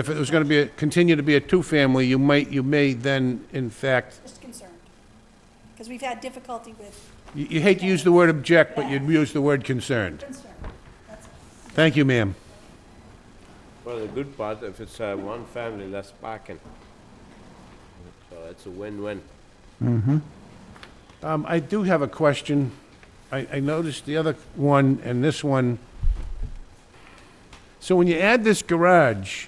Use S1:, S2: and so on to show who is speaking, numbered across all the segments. S1: If it was gonna be, a- continue to be a two-family, you might, you may then, in fact,
S2: Just concerned. Because we've had difficulty with
S1: you you hate to use the word object, but you'd use the word concerned.
S2: concern.
S1: Thank you, ma'am.
S3: Well, the good part, if it's uh, one family, less parking. So it's a win-win.
S1: Um, I do have a question. I, I noticed the other one and this one. So when you add this garage,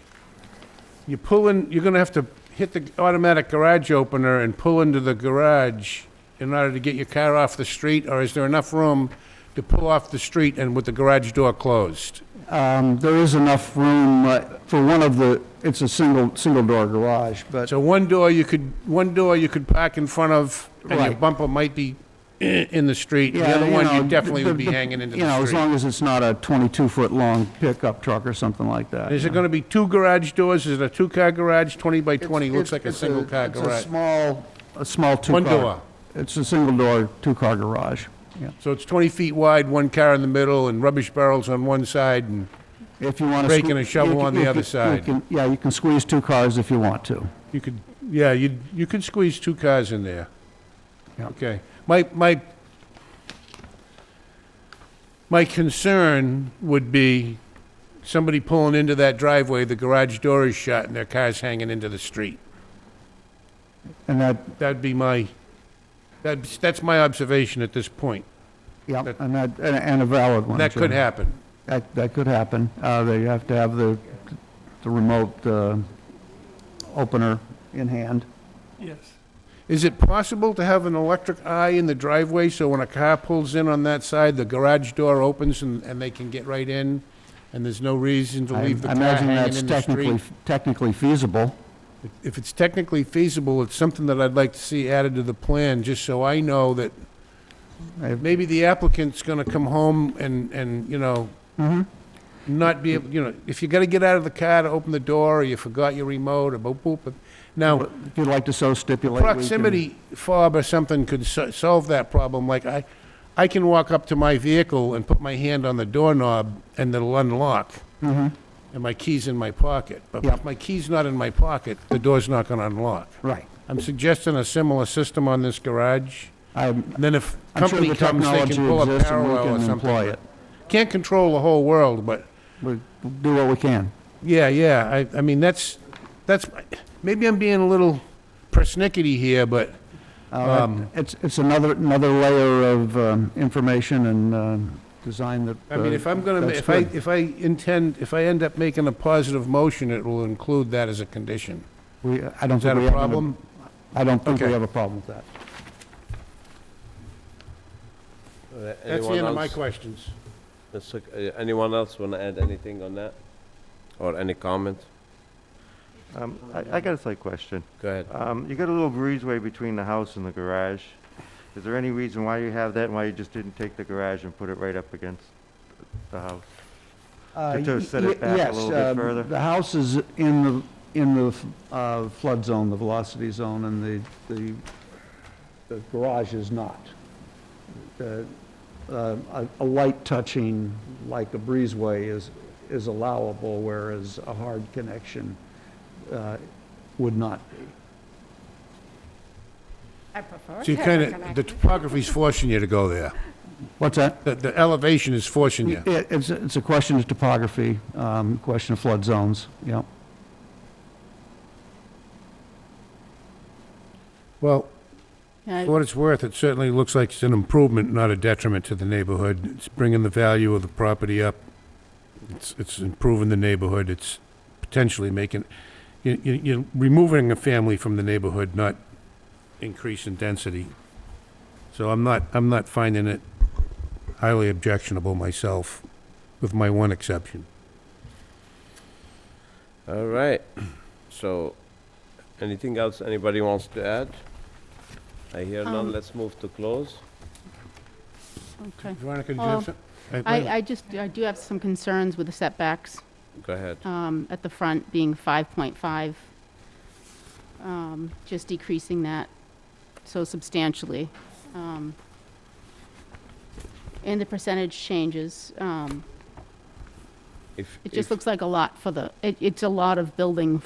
S1: you pull in, you're gonna have to hit the automatic garage opener and pull into the garage in order to get your car off the street, or is there enough room to pull off the street and with the garage door closed?
S4: Um, There is enough room uh, for one of the, it's a single, single-door garage, but
S1: So one door you could, one door you could park in front of, and your
S4: Right.
S1: bumper might be eh, in the street. The
S4: Yeah,
S1: other
S4: you
S1: one, you
S4: know,
S1: definitely
S4: the-
S1: would be
S4: the-
S1: hanging into
S4: You know,
S1: the
S4: as
S1: street.
S4: long as it's not a 22-foot-long pickup truck or something like that.
S1: Is
S4: you
S1: it
S4: know.
S1: gonna be two garage doors? Is it a two-car garage, 20 by
S4: It's-
S1: 20? Looks
S4: it's-
S1: like a
S4: it's
S1: single-car garage.
S4: It's a small, a small two-car.
S1: One door.
S4: It's a single-door, two-car garage, yeah.
S1: So it's 20 feet wide, one car in the middle, and rubbish barrels on one side, and,
S4: If you want to...
S1: Rake and a shovel on the other side.
S4: Yeah, you can squeeze two cars if you want to.
S1: you could, yeah, you, you could squeeze two cars in there.
S4: Yeah.
S1: Okay. My, my, my concern would be somebody pulling into that driveway, the garage door is shut, and their car's hanging into the street.
S4: And that,
S1: That'd be my, that's, that's my observation at this point.
S4: yeah,
S1: That-
S4: and that, and- and a valid one.
S1: That
S4: too.
S1: could happen.
S4: That, that could happen. Uh, They have to have the, the remote uh, opener in hand.
S1: Is it possible to have an electric eye in the driveway, so when a car pulls in on that side, the garage door opens and, and they can get right in? And there's no reason to
S4: I
S1: leave the
S4: I
S1: car
S4: imagine
S1: hanging
S4: that's
S1: in the
S4: technically
S1: street?
S4: Technically feasible.
S1: If it's technically feasible, it's something that I'd like to see added to the plan, just so I know that
S4: I-
S1: maybe the applicant's gonna come home and, and, you know,
S4: Mhm.
S1: not be, able you know, if you gotta get out of the car to open the door, or you forgot your remote, or boop, boop. but- Now,
S4: If you'd like to so stipulate. we can-
S1: proximity fob or something could so- solve that problem, like I, I can walk up to my vehicle and put my hand on the doorknob and it'll unlock. And my key's in my pocket, but
S4: Mm-hmm. Yeah.
S1: if my key's not in my pocket, the door's not gonna unlock.
S4: Right.
S1: I'm suggesting a similar system on this garage,
S4: I'm,
S1: and then if
S4: I'm sure
S1: company
S4: the
S1: comes, they
S4: technology
S1: can pull a
S4: exists and
S1: parallel or
S4: we can employ
S1: something.
S4: it.
S1: Can't control the whole world, but
S4: We do what we can.
S1: yeah, yeah, I, I mean, that's, that's, maybe I'm being a little persnickety here, but
S4: Uh,
S1: Um,
S4: It's, it's another, another layer of um, information and um, design that.
S1: I mean,
S4: uh,
S1: if I'm gonna, ma-
S4: that's
S1: if I,
S4: good.
S1: if I intend, if I end up making a positive motion, it will include that as a condition.
S4: We, I don't
S1: Is that
S4: think we
S1: a
S4: have. an-
S1: problem?
S4: I don't think we
S1: Okay.
S4: have a problem with that.
S1: That's the end of my questions.
S3: question. uh, Anyone else want to add anything on that? Or any comment?
S5: Um, I, I got a slight question.
S3: Go ahead.
S5: Um, you got a little breezeway between the house and the garage. Is there any reason why you have that and why you just didn't take the garage and put it right up against the house?
S4: Uh,
S5: To- to
S4: y-
S5: set
S4: y-
S5: it back a little bit
S4: Yes, um,
S5: further?
S4: the house is in the, in the uh, flood zone, the velocity zone, and the, the, the garage is not. The, uh, A a light touching, like a breezeway, is, is allowable, whereas a hard connection uh, would not be.
S6: I prefer.
S1: So you
S6: to
S1: kind
S6: have a
S1: of, the
S6: connection.
S1: topography's forcing you to go there.
S4: What's that?
S1: The, the elevation is forcing you.
S4: It, it's, a- it's a question of topography, um, question of flood zones, yeah.
S1: Well,
S6: Yeah,
S1: for what it's worth, it certainly looks like it's an improvement, not a detriment to the neighborhood. It's bringing the value of the property up. It's, it's improving the neighborhood. It's potentially making, you, you, you're removing a family from the neighborhood, not increasing density. So I'm not, I'm not finding it highly objectionable myself, with my one exception.
S3: All right. So, anything else anybody wants to add? I hear none. Let's move to close.
S6: okay.
S1: Veronica, did
S6: you have Oh, some- I, I just, I do have some concerns with the setbacks
S3: Go ahead.
S6: um, at the front being 5.5, um, just decreasing that so substantially. Um, And the percentage changes. um,
S3: If if-
S6: It just looks like a lot for the, it, it's a lot of building